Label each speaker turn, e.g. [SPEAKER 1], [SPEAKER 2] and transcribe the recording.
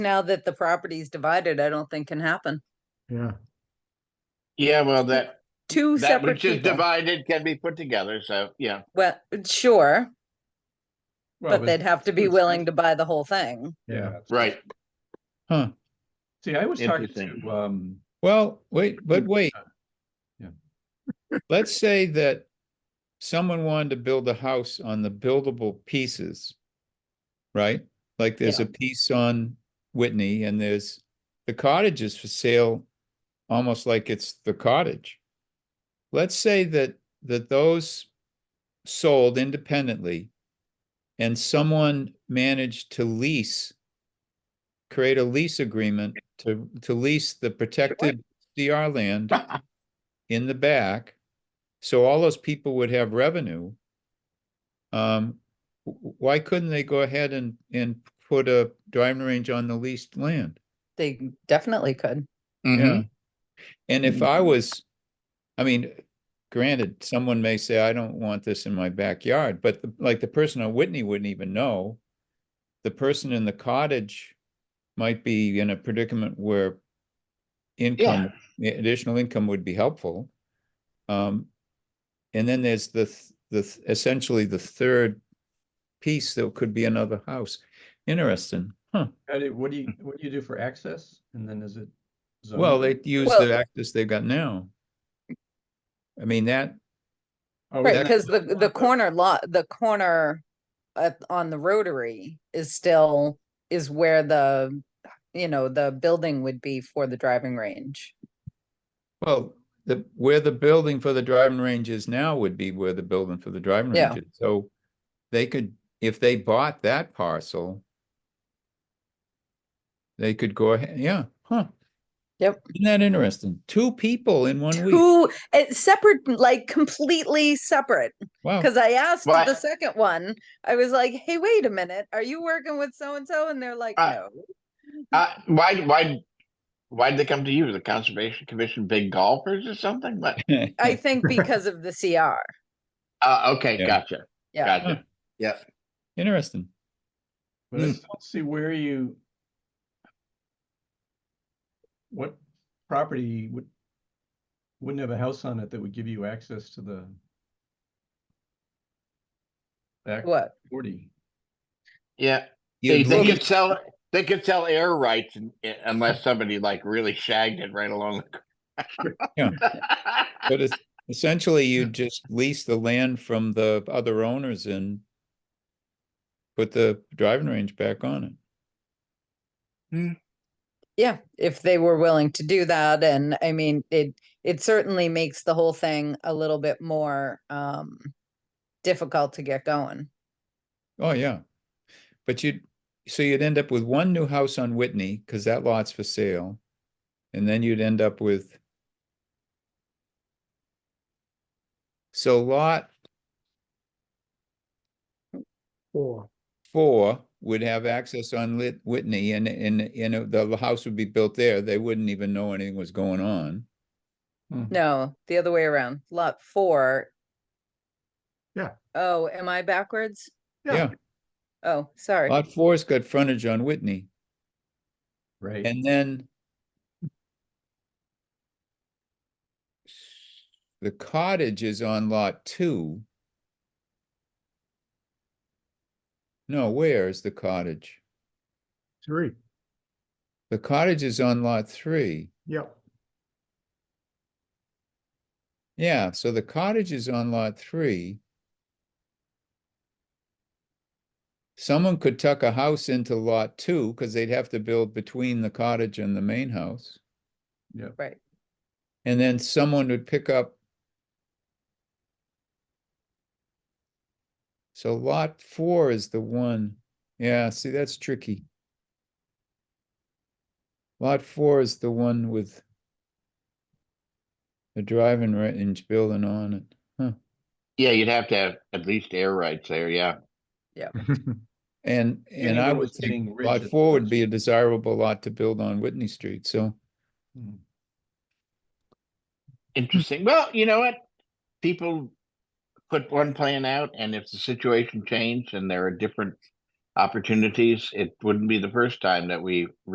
[SPEAKER 1] now that the property's divided, I don't think can happen.
[SPEAKER 2] Yeah,
[SPEAKER 3] Yeah, well, that,
[SPEAKER 1] Two
[SPEAKER 3] that
[SPEAKER 1] separate
[SPEAKER 3] which is
[SPEAKER 1] people.
[SPEAKER 3] divided can be put together, so, yeah.
[SPEAKER 1] Well, sure,
[SPEAKER 4] Well,
[SPEAKER 1] but they'd have to be
[SPEAKER 4] it's-
[SPEAKER 1] willing to buy the whole thing.
[SPEAKER 2] yeah.
[SPEAKER 4] it's-
[SPEAKER 3] Right,
[SPEAKER 4] See, I was talking
[SPEAKER 3] Interesting.
[SPEAKER 4] to, um,
[SPEAKER 5] Well, wait, but wait.
[SPEAKER 4] Yeah.
[SPEAKER 5] Let's say that someone wanted to build a house on the buildable pieces. Right? Like there's a piece on Whitney and there's the cottage is for sale, almost like it's the cottage. Let's say that, that those sold independently and someone managed to lease, create a lease agreement to, to lease the protected DR land in the back. So all those people would have revenue. Um, wh- wh- why couldn't they go ahead and, and put a driving range on the leased land?
[SPEAKER 1] They definitely could.
[SPEAKER 3] Mm-hmm.
[SPEAKER 5] Yeah. Mm-hmm. And if I was, I mean, granted, someone may say, I don't want this in my backyard, but the- like the person on Whitney wouldn't even know. The person in the cottage might be in a predicament where income, i- additional income would be helpful. Um, and then there's the, th- the, th- essentially the third piece that could be another house. Interesting, huh?
[SPEAKER 4] how do- what do you, what do you do for access? And then is it?
[SPEAKER 5] Well,
[SPEAKER 4] zoned?
[SPEAKER 5] they use
[SPEAKER 1] Well-
[SPEAKER 5] the access they've got now. I mean, that,
[SPEAKER 4] Oh,
[SPEAKER 1] Right,
[SPEAKER 4] that-
[SPEAKER 1] because the, the corner lot, the corner uh, on the rotary is still, is where the, you know, the building would be for the driving range.
[SPEAKER 5] well, the, where the building for the driving range is now would be where the building for the driving
[SPEAKER 1] Yeah.
[SPEAKER 5] range is. So they could, if they bought that parcel, they could go ahead, yeah, huh?
[SPEAKER 1] Yep.
[SPEAKER 5] Isn't that interesting? Two people in one week.
[SPEAKER 1] Who, it's eh, separate, like completely separate.
[SPEAKER 5] Wow,
[SPEAKER 1] Because I asked
[SPEAKER 3] Oh. Well, I-
[SPEAKER 1] the second one, I was like, hey, wait a minute, are you working with so and so? And they're like,
[SPEAKER 3] I-
[SPEAKER 1] no.
[SPEAKER 3] uh, why, why, why'd they come to you? The Conservation Commission, big golfers or something? But,
[SPEAKER 1] I think because of the CR.
[SPEAKER 3] uh, okay,
[SPEAKER 5] Yeah.
[SPEAKER 3] gotcha,
[SPEAKER 1] Yeah.
[SPEAKER 3] gotcha.
[SPEAKER 5] interesting.
[SPEAKER 4] But I
[SPEAKER 5] Hmm.
[SPEAKER 4] still don't see where you. What property would, wouldn't have a house on it that would give you access to the. Back
[SPEAKER 1] What?
[SPEAKER 4] forty.
[SPEAKER 3] Yeah,
[SPEAKER 5] You'd
[SPEAKER 3] they, they
[SPEAKER 5] lose-
[SPEAKER 3] could sell, they could sell air rights un- unless somebody like really shagged it right along.
[SPEAKER 5] Yeah.
[SPEAKER 3] the
[SPEAKER 5] But it's essentially you just lease the land from the other owners and put the driving range back on it.
[SPEAKER 1] Yeah, if they were willing to do that. And I mean, it, it certainly makes the whole thing a little bit more um difficult to get going.
[SPEAKER 5] Oh, yeah. But you'd, so you'd end up with one new house on Whitney, because that lot's for sale. And then you'd end up with. So lot
[SPEAKER 2] Four.
[SPEAKER 5] four would have access on Lit, Whitney and, and, and the house would be built there. They wouldn't even know anything was going on.
[SPEAKER 1] No, the other way around. Lot four.
[SPEAKER 2] Yeah.
[SPEAKER 1] Oh, am I backwards?
[SPEAKER 2] Yeah.
[SPEAKER 5] Yeah,
[SPEAKER 1] Oh, sorry.
[SPEAKER 5] lot four's got frontage on Whitney.
[SPEAKER 4] Right,
[SPEAKER 5] And then the cottage is on lot two. No, where is the cottage?
[SPEAKER 2] Three,
[SPEAKER 5] The cottage is on lot three.
[SPEAKER 2] yep.
[SPEAKER 5] Yeah, so the cottage is on lot three. Someone could tuck a house into lot two because they'd have to build between the cottage and the main house.
[SPEAKER 1] Right.
[SPEAKER 5] And then someone would pick up. So lot four is the one, yeah, see, that's tricky. Lot four is the one with. The driving range building on it,
[SPEAKER 3] Yeah, you'd have to have at least air rights there, yeah.
[SPEAKER 5] and, and I
[SPEAKER 4] Anywhere
[SPEAKER 5] would
[SPEAKER 4] with
[SPEAKER 5] think
[SPEAKER 4] getting rid
[SPEAKER 5] lot
[SPEAKER 4] of
[SPEAKER 5] four would
[SPEAKER 4] those.
[SPEAKER 5] be a desirable lot to build on Whitney Street, so.
[SPEAKER 4] Hmm.
[SPEAKER 3] Interesting. Well, you know what? People put one plan out and if the situation changed and there are different opportunities, it wouldn't be the first time that we